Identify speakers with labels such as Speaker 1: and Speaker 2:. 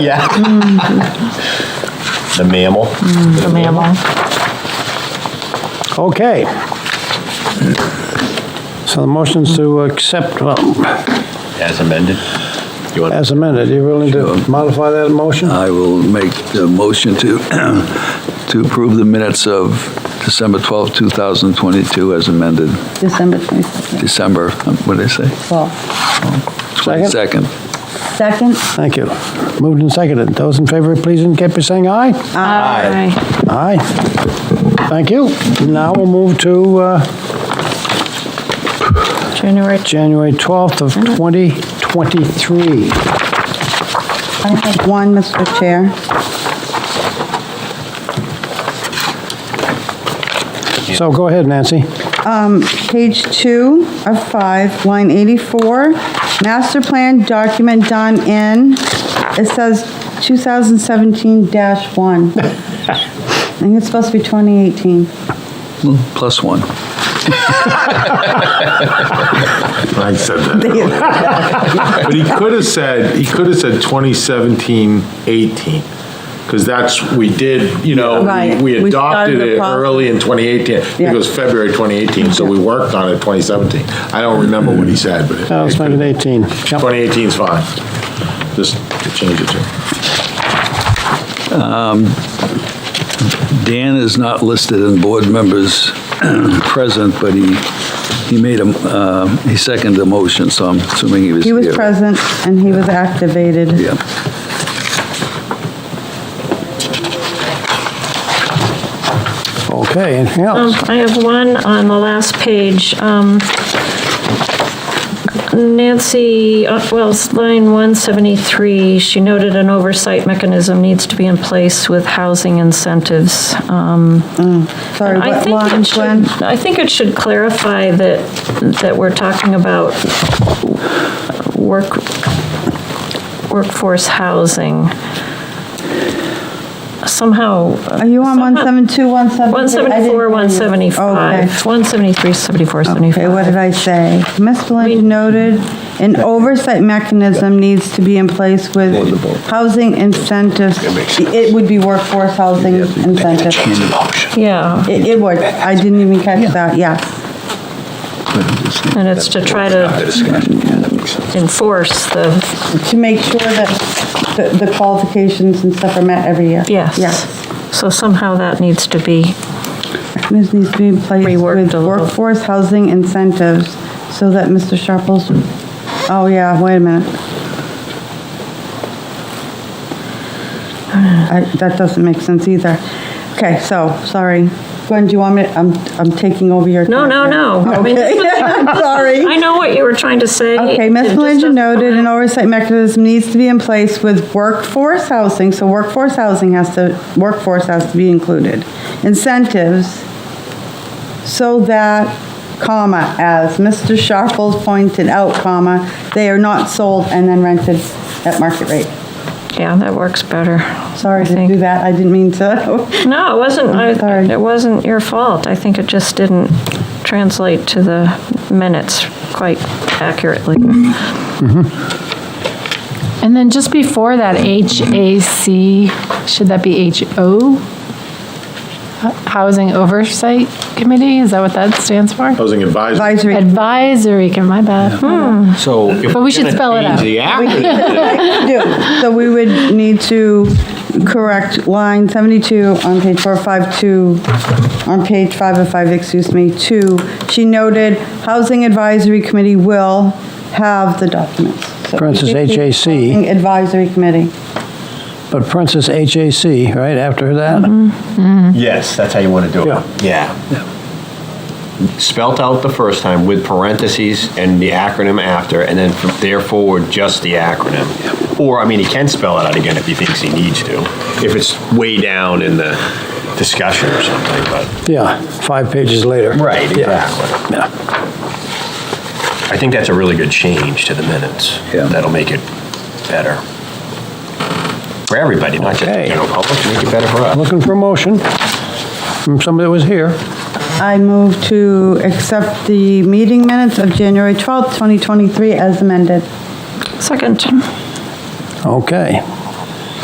Speaker 1: Yeah. The mammal.
Speaker 2: the mammal.
Speaker 3: Okay. So the motion's to accept, well,
Speaker 1: As amended. You want,
Speaker 3: as amended, you willing to modify that motion?
Speaker 4: I will make the motion to, to approve the minutes of December 12, 2022 as amended,
Speaker 5: December 22nd.
Speaker 4: December, um, what did I say?
Speaker 5: Well,
Speaker 4: 22nd.
Speaker 5: Second?
Speaker 3: Thank you. Moved and seconded. Those in favor, please indicate by saying aye.
Speaker 2: Aye.
Speaker 3: Aye. Thank you. Now we'll move to uh,
Speaker 2: January,
Speaker 3: January 12th of 2023.
Speaker 5: I have one, Mr. Chair.
Speaker 3: So go ahead, Nancy.
Speaker 5: Page two of five, line 84, master plan document done in, it says 2017-1. I think it's supposed to be 2018.
Speaker 4: Plus one.
Speaker 6: I said that earlier. But he could have said, he could have said 2017, 18, because that's, we did, you know,
Speaker 5: Right.
Speaker 6: we- we
Speaker 5: We
Speaker 6: adopted
Speaker 5: started the
Speaker 6: it
Speaker 5: process.
Speaker 6: early in 2018. I think
Speaker 5: Yeah.
Speaker 6: it was February 2018, so we worked on it 2017. I don't remember what he said, but it-
Speaker 3: Uh, Let's
Speaker 6: it
Speaker 3: make
Speaker 6: could-
Speaker 3: it 18. Yep.
Speaker 6: 2018 is fine. Just to change it to.
Speaker 4: Dan is not listed in board members present, but he, he made a, uh, he seconded the motion, so I'm assuming he was
Speaker 5: He
Speaker 4: here.
Speaker 5: was present and he was activated.
Speaker 4: Yeah.
Speaker 3: Okay, anything
Speaker 2: Um,
Speaker 3: else?
Speaker 2: I have one on the last page. Um, Nancy, uh, well, it's line 173, she noted an oversight mechanism needs to be in place with housing incentives. Um,
Speaker 5: Sorry,
Speaker 2: I
Speaker 5: what
Speaker 2: think it
Speaker 5: line,
Speaker 2: should-
Speaker 5: Glenn?
Speaker 2: I think it should clarify that, that we're talking about work, workforce housing. Somehow.
Speaker 5: Are you on 172, 173?
Speaker 2: 174, 175, 173, 74,
Speaker 5: Okay, what did
Speaker 2: 75.
Speaker 5: I say? Ms. Belinda noted, an oversight mechanism needs to be in place with housing incentives. It would be workforce housing incentives.
Speaker 2: Yeah,
Speaker 5: It it would, I didn't even catch that, yes.
Speaker 2: and it's to try to enforce the,
Speaker 5: To make sure that the- the qualifications and stuff are met every year.
Speaker 2: yes.
Speaker 5: Yes.
Speaker 2: So somehow that needs to be,
Speaker 5: This needs to be in place
Speaker 2: Reworked
Speaker 5: with
Speaker 2: a little.
Speaker 5: workforce housing incentives so that Mr. Sharples, oh yeah, wait a minute. I- That doesn't make sense either. Okay, so, sorry. Gwen, do you want me, I'm, I'm taking over your.
Speaker 2: no, no,
Speaker 5: time here.
Speaker 2: no. I mean,
Speaker 5: Okay, I'm sorry.
Speaker 2: I know what you were trying to say.
Speaker 5: Okay, Ms. Malinga noted an oversight mechanism needs to be in place with workforce housing, so workforce housing has to, workforce has to be included. Incentives, so that, comma, as Mr. Sharples pointed out, comma, they are not sold and then rented at market rate.
Speaker 2: Yeah, that works better.
Speaker 5: Sorry
Speaker 2: I
Speaker 5: to
Speaker 2: think.
Speaker 5: do that, I didn't mean to.
Speaker 2: No, it wasn't,
Speaker 5: Sorry.
Speaker 2: I- it wasn't your fault. I think it just didn't translate to the minutes quite accurately.
Speaker 7: And then just before that, HAC, should that be HO? Housing Oversight Committee, is that what that stands for?
Speaker 6: Housing advisory.
Speaker 5: Advisory,
Speaker 7: Advisory, com- my bad. Hmm.
Speaker 4: So
Speaker 7: But we should spell it out.
Speaker 5: do. so we would need to correct line 72 on page 452, on page 505, excuse me, 2. She noted, Housing Advisory Committee will have the documents. So
Speaker 3: For instance, HAC.
Speaker 5: Housing Advisory Committee.
Speaker 3: But Princess HAC, right after
Speaker 2: Mm-hmm.
Speaker 3: that?
Speaker 1: yes, that's how you want to do
Speaker 3: Yeah.
Speaker 1: it. Yeah. Spelt out the first time with parentheses and the acronym after, and then from there forward, just the acronym. Or, I mean, he can spell it out again if he thinks he needs to, if it's way down in the discussion or something, but.
Speaker 3: Yeah, five pages later.
Speaker 1: Right, exactly.
Speaker 3: Yeah.
Speaker 1: I think that's a really good change to the minutes.
Speaker 4: Yeah.
Speaker 1: That'll make it better. For everybody, not just the
Speaker 3: Okay.
Speaker 1: general public, make it better for us.
Speaker 3: Looking for a motion from somebody that was here.
Speaker 5: I move to accept the meeting minutes of January 12th, 2023 as amended.
Speaker 2: Second,
Speaker 3: Okay,